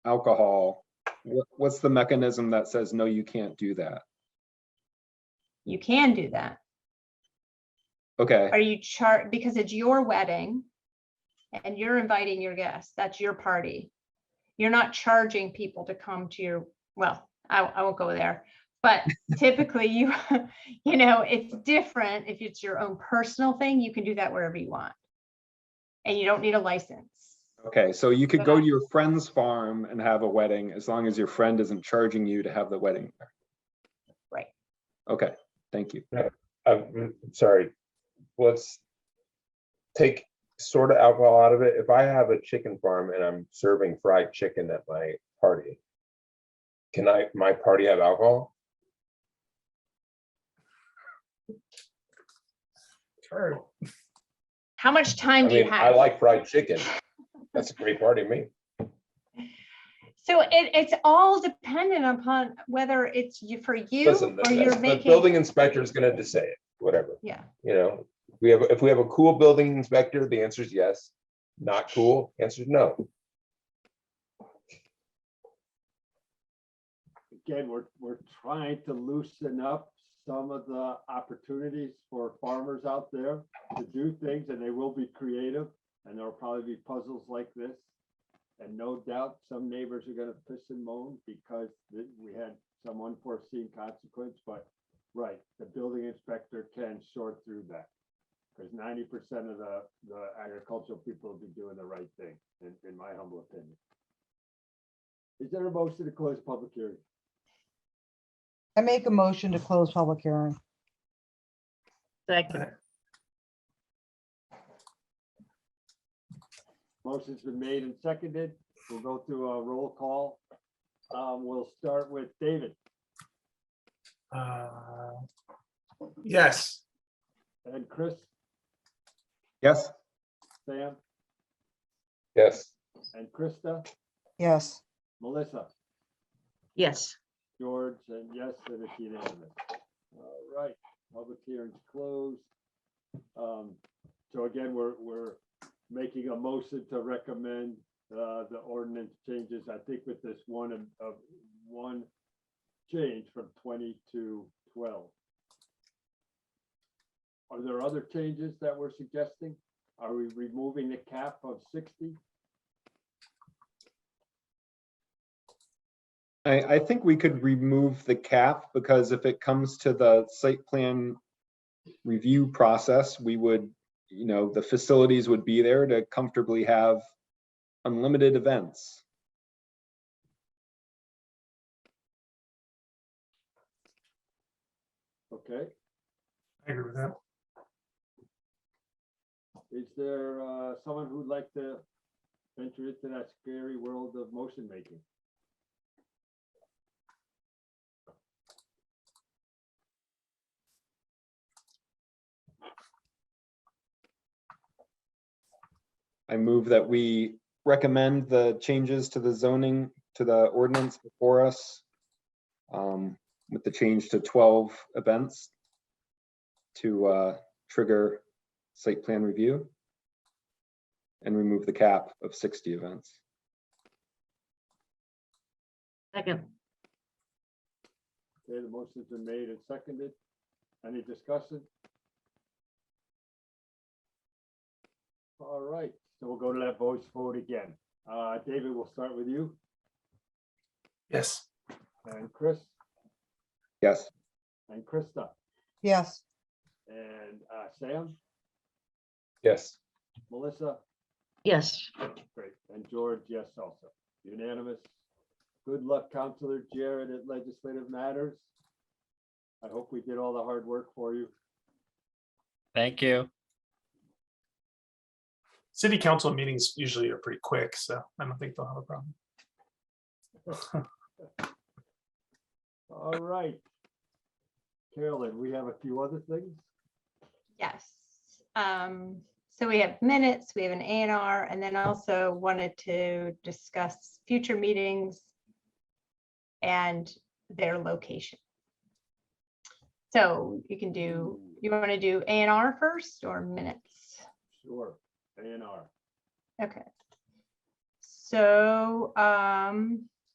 alcohol, what, what's the mechanism that says, no, you can't do that? You can do that. Okay, Are you chart, because it's your wedding and you're inviting your guests, that's your party. You're not charging people to come to your, well, I, I won't go there. But typically you, you know, it's different. If it's your own personal thing, you can do that wherever you want. And you don't need a license. okay, so you could But go I- to your friend's farm and have a wedding as long as your friend isn't charging you to have the wedding. there. Right. Okay, thank you. I'm Uh, sorry, let's take sort of alcohol out of it. If I have a chicken farm and I'm serving fried chicken at my party, can I, my party have alcohol? How much I time do you mean, I have? like fried chicken. That's a great party to me. So it, it's all dependent upon whether it's you, for you Listen, the or you're the making, building inspector is gonna say it, whatever, yeah, you know? We have, if we have a cool building inspector, the answer is yes. Not cool, answer is no. again, we're, we're trying to loosen up some of the opportunities for farmers out there to do things and they will be creative and there'll probably be puzzles like this. And no doubt some neighbors are gonna piss and moan because th- we had some unforeseen consequence, but right, the building inspector can sort through that. Because ninety percent of the, the agricultural people will be doing the right thing, in, in my humble opinion. Is there a motion to close public hearing? I make a motion to close public hearing. Second, Motion's been made and seconded. We'll go through a roll call. Um, we'll start with David Uh, Yes, and Chris, Yes, Sam Yes, and Krista, Yes, Melissa, yes, George, and yes, and it's unanimous. All right, public hearing's closed. Um, so again, we're, we're making a motion to recommend, uh, the ordinance changes, I think with this one of, of one change from twenty to twelve. Are there other changes that we're suggesting? Are we removing the cap of sixty? I, I think we could remove the cap because if it comes to the site plan review process, we would, you know, the facilities would be there to comfortably have unlimited events. Okay, I agree with that. is there, uh, someone who'd like to venture into that scary world of motion making? I move that we recommend the changes to the zoning, to the ordinance before us. um, With the change to twelve events. To uh, trigger site plan review. And remove the cap of sixty events. second, Okay, the motion's been made and seconded. Any discussion? All right, so we'll go to that voice vote again. Uh, David, we'll start with you Yes, and Chris Yes, and Krista yes, and, uh, Sam, yes, Melissa, yes, great, and George, yes also. Unanimous. Good luck, Counselor Jared at Legislative Matters. I hope we did all the hard work for you. Thank you. city council meetings usually are pretty quick, so I don't think they'll have a problem. All right. Carolyn, we have a few other things. yes. Um, so we have minutes, we have an A and R, and then also wanted to discuss future meetings and their location. So you can do, you want to do A and R first or minutes? Sure, A and R. Okay. So, um,